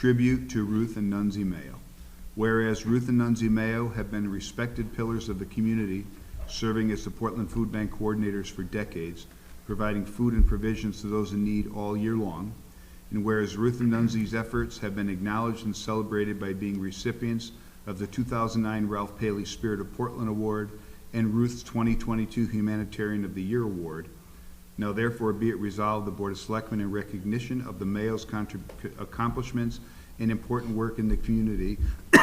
tribute to Ruth and Nunzi Mayo. Whereas Ruth and Nunzi Mayo have been respected pillars of the community, serving as the Portland Food Bank coordinators for decades, providing food and provisions to those in need all year long. And whereas Ruth and Nunzi's efforts have been acknowledged and celebrated by being recipients of the 2009 Ralph Paley Spirit of Portland Award and Ruth's 2022 Humanitarian of the Year Award, now therefore be it resolved, the Board of Selectmen in recognition of the mayor's contrib- accomplishments and important work in the community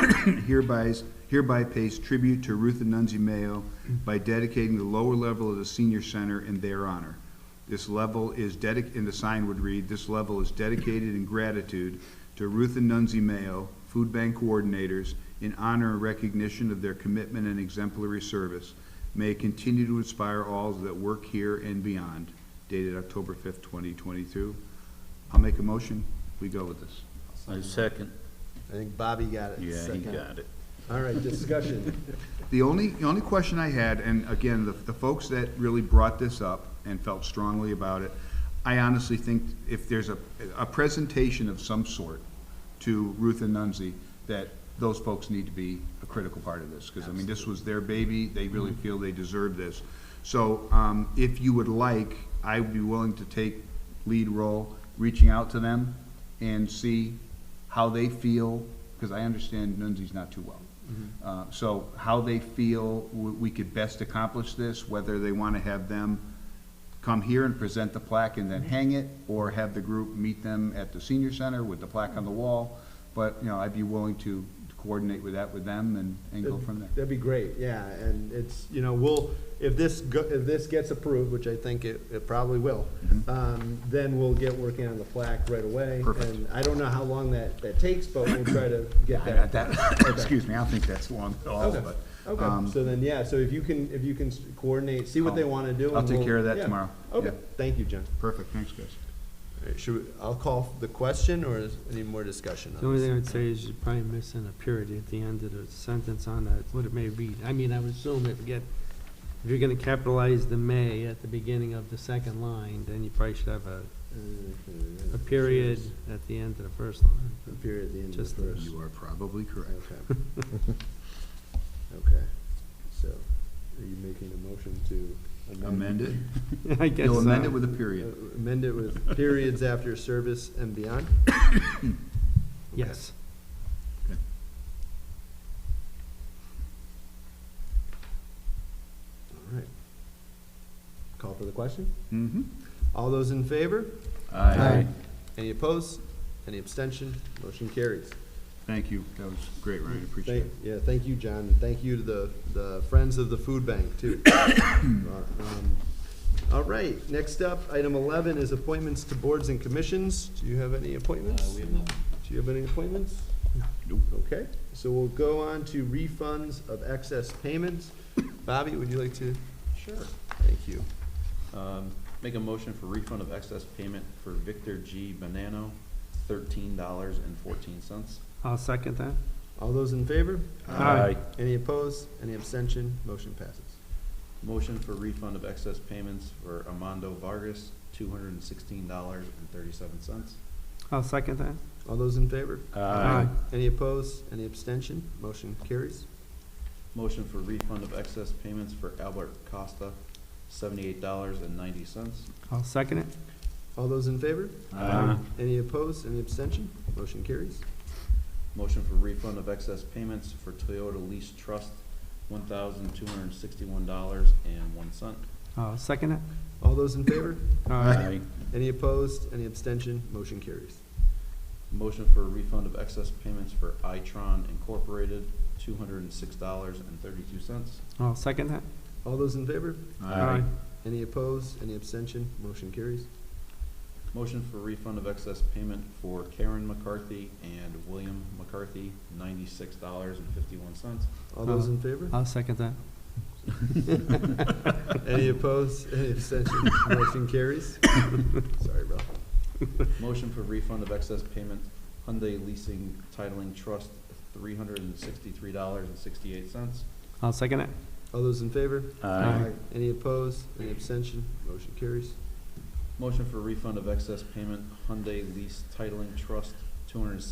hereby, hereby pays tribute to Ruth and Nunzi Mayo by dedicating the lower level of the senior center in their honor. This level is dedic, and the sign would read, this level is dedicated in gratitude to Ruth and Nunzi Mayo, food bank coordinators, in honor and recognition of their commitment and exemplary service. May it continue to inspire all that work here and beyond. Dated October fifth, twenty twenty-two. I'll make a motion, we go with this. Oh, I second. I think Bobby got it. Yeah, he second. got it. All right, discussion. The only, the only question I had, and again, the, the folks that really brought this up and felt strongly about it, I honestly think if there's a, a presentation of some sort to Ruth and Nunzi, that those folks need to be a critical part of this, because I mean, this was their baby, they really feel they deserve this. So, um, if you would like, I would be willing to take lead role, reaching out to them and see how they feel, because I understand Nunzi's not too well. Uh, So how they feel w- we could best accomplish this, whether they want to have them come here and present the plaque and then hang it, or have the group meet them at the senior center with the plaque on the wall. But, you know, I'd be willing to coordinate with that with them and, and go from there. That'd be great, yeah, and it's, you know, we'll, if this, go- if this gets approved, which I think it, it probably will, um, then we'll get working on the plaque right away. Mm-hmm. Perfect. And I don't know how long that, that takes, but we'll try to get I got that. that, excuse me, I don't think that's long at all, Okay, but. okay, um, so then, yeah, so if you can, if you can s- coordinate, see what they I'll- wanna do. I'll and take we'll- care of that yeah. tomorrow, Okay, yeah. thank you, John. Perfect, thanks, guys. All right, Should, we- I'll call the question, or is any more discussion The on only this? thing I'd say is you're probably missing a period at the end of the sentence on that, what it may read. I mean, I would assume if you get, if you're gonna capitalize the may at the beginning of the second line, then you probably should have a, Mhm. a period at the end of the first line. A period at the end of Just the verse. You are probably correct. Okay. Okay, so are you making a motion to amend? Amend it, I guess you'll amend it so. with a Uh, period. Amend it with periods after service and beyond? Yes. All right. Call for the question? Mm-hmm. All those in favor? Aye. Any opposed? Any abstention? Motion carries. Thank you, that was great, Ryan, appreciate Thank, it. yeah, thank you, John, and thank you to the, the Friends of the Food Bank, too. Um, All right, next up, item eleven is appointments to boards and commissions. Do you have any appointments? Uh, we have none. Do you have any appointments? Nope. Okay, so we'll go on to refunds of excess payments. Bobby, would you like to? Sure. Thank you. Um, Make a motion for refund of excess payment for Victor G. Bonanno, thirteen dollars and fourteen cents. I'll second that. All those in favor? Aye. Any opposed? Any abstention? Motion passes. Motion for refund of excess payments for Amando Vargas, two hundred and sixteen dollars and thirty-seven cents. I'll second that. All those in favor? Aye. Any opposed? Any abstention? Motion carries. Motion for refund of excess payments for Albert Costa, seventy-eight dollars and ninety cents. I'll second it. All those in favor? Aye. Any opposed, any abstention? Motion carries. Motion for refund of excess payments for Toyota Lease Trust, one thousand two hundred and sixty-one dollars and one cent. I'll second it. All those in favor? Aye. Any opposed, any abstention? Motion carries. Motion for refund of excess payments for Itron Incorporated, two hundred and six dollars and thirty-two cents. I'll second that. All those in favor? Aye. Any opposed, any abstention? Motion carries. Motion for refund of excess payment for Karen McCarthy and William McCarthy, ninety-six dollars and fifty-one cents. All those in favor? I'll second that. Any opposed, any abstention? Motion carries. Sorry, Ralph. Motion for refund of excess payment Hyundai Leasing Titling Trust, three hundred and sixty-three dollars and sixty-eight cents. I'll second it. All those in favor? Aye. Any opposed, any abstention? Motion carries. Motion for refund of excess payment Hyundai Lease Titling Trust, two hundred and